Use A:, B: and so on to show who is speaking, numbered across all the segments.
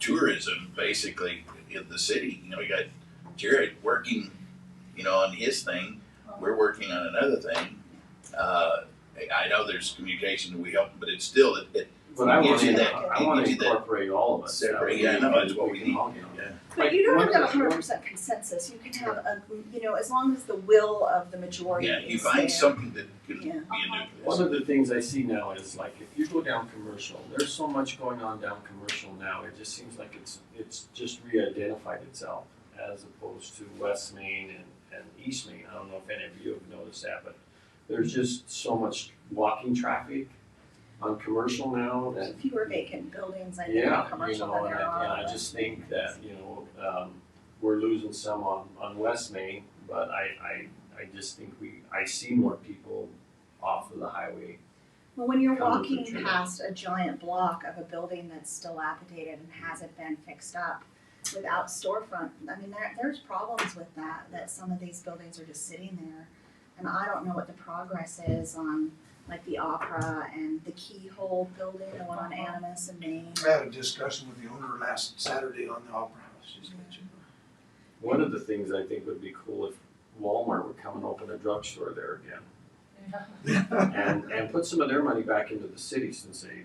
A: tourism basically in the city. You know, we got Jared working, you know, on his thing. We're working on another thing. Uh, I know there's communication that we help, but it's still it, it
B: But
A: It
B: I want
A: gives you
B: to,
A: that-
B: I
A: it
B: want to
A: gives you that
B: incorporate all of us. That
A: separate.
B: way
A: Yeah, I know,
B: we can-
A: that's what we
B: can
A: need.
B: all get on.
A: Yeah.
B: Like,
C: But you don't
B: one
C: have
B: of
C: to have
B: the-
C: hundred percent consensus, you can have a, you know, as long as the will of the majority
A: yeah, you
C: is
A: find
C: there.
A: something that can
C: Yeah.
A: be a
B: One
A: nucleus.
B: of the things I see now is like, if you go down commercial, there's so much going on down commercial now, it just seems like it's, it's just re-identified itself as opposed to West Main and, and East Main, I don't know if any of you have noticed that, but there's just so much walking traffic on commercial now that
C: There's Fewer vacant buildings, I think,
B: Yeah,
C: in
B: you
C: commercial
B: know,
C: than
B: and
C: there are.
B: I, and I just think that, you know, um, we're losing some on, on West Main, but I, I, I just think we, I see more people off of the highway.
C: Well, when you're
B: Kind of
C: walking
B: picture that.
C: past a giant block of a building that's dilapidated and hasn't been fixed up without storefront, I mean, there, there's problems with that, that some of these buildings are just sitting there. And I don't know what the progress is on like the Opera and the Keyhole building, the one on Animus and Maine.
D: I had a discussion with the owner last Saturday on the Opera House. She's got you.
B: One of the things I think would be cool if Walmart would come and open a drugstore there again. And, and put some of their money back into the city since they,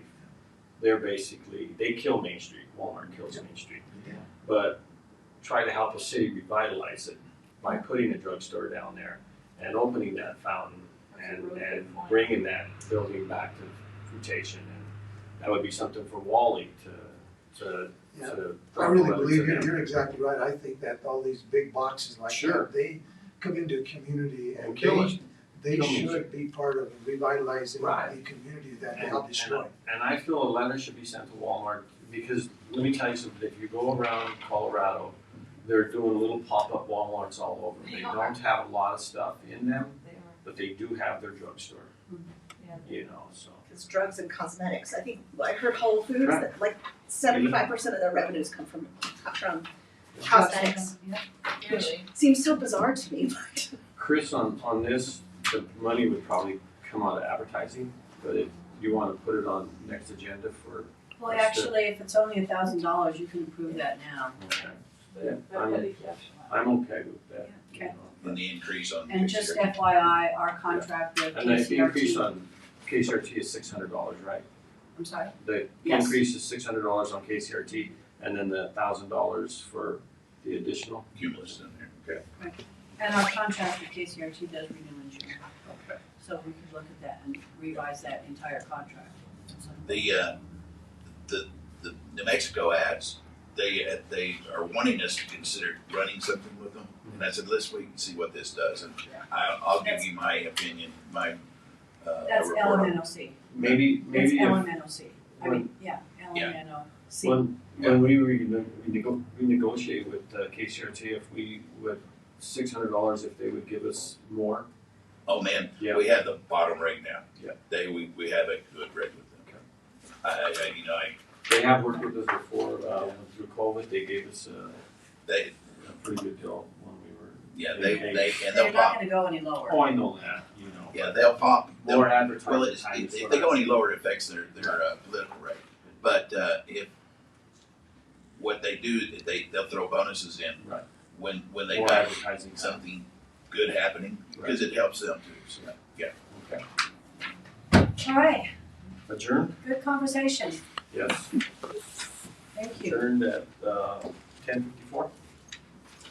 B: they're basically, they kill Main Street, Walmart kills Main Street.
D: Yeah.
B: But try to help a city revitalize it by putting a drugstore down there and opening that fountain
E: That's a
B: and,
E: really
B: and
E: good point.
B: bringing that building back to fruition. And that would be something for Wally to, to,
D: Yeah.
B: to.
D: I really
B: to
D: believe
B: them.
D: you're, you're exactly right. I think that all these big boxes like
B: Sure.
D: that, they come into a community
B: And
D: and
B: kill it.
D: they, they
B: Kill them.
D: should be part of revitalizing
B: Right.
D: the community that they
B: And-
D: helped destroy.
B: And I feel a letter should be sent to Walmart, because let me tell you something, if you go around Colorado, they're doing little pop-up Walmarts all over. They
E: They
B: don't have a lot of stuff in them,
E: They are,
B: but they do have their drugstore.
E: Yeah.
B: You know, so.
C: Cause drugs and cosmetics, I think, I heard Whole Foods,
B: Right.
C: that like seventy-five percent of their revenues come from, from
B: Yeah.
C: cosmetics.
E: clearly.
C: Seems so bizarre to me, but.
B: Chris, on, on this, the money would probably come out of advertising, but if you wanna put it on next agenda for,
F: Well,
B: That's the-
F: actually, if it's only a thousand dollars, you can approve that now.
B: okay, Yeah,
E: But
B: I'm-
E: that is exceptional.
B: I'm okay with that. you
F: Okay.
B: know.
A: And the increase on
F: And just FYI, our contract with
B: And the increase
F: KCRT,
B: on KCRT is six hundred dollars, right?
F: I'm sorry,
B: The
F: Yes.
B: increase is six hundred dollars on KCRT and then the thousand dollars for the additional.
A: cumulus in there. Okay.
F: and our contract with KCRT does renew in June,
B: Okay.
F: so we could look at that and revise that entire contract. So-
A: the uh, the the New Mexico ads, they uh, they are wanting us to consider running something with them. And I said, let's wait and see what this does. And I, I'll give you my opinion, my uh,
F: That's
A: report. on-
F: LMNOC,
B: Maybe,
F: that's
B: maybe if,
F: LMNOC, I
B: when,
F: mean, yeah, LMNOC.
B: when, when we rene- we nego- we negotiate with uh, KCRT, if we would, six hundred dollars if they would give us more.
A: Oh man,
B: Yeah.
A: we have the bottom right now.
B: Yeah.
A: They we, we have a good rate with them. I, I, I- you know, I,
B: They have worked with us before, uh, through COVID, they gave us a,
A: they
B: a pretty good deal when we were.
A: yeah they
B: They-
A: they and
F: They're
A: they'll
F: not
A: pop.
F: gonna go any lower.
B: Oh, I know that, you know.
A: Yeah, they'll pop. They'll
B: More
A: Well,
B: advertising
A: it's,
B: time
A: if
B: is
A: if
B: what
A: they
B: I-
A: go any lower, it affects their, their uh, political rate. But uh, if, what they do, is they, they'll throw bonuses in.
B: Right.
A: When, when they
B: More
A: have
B: advertising time.
A: something good happening, because it helps them too, so, yeah.
B: Okay.
F: All right,
B: Adjourn?
F: good conversation,
B: Yes.
F: thank you.
B: Adjourned at, uh, ten fifty-four?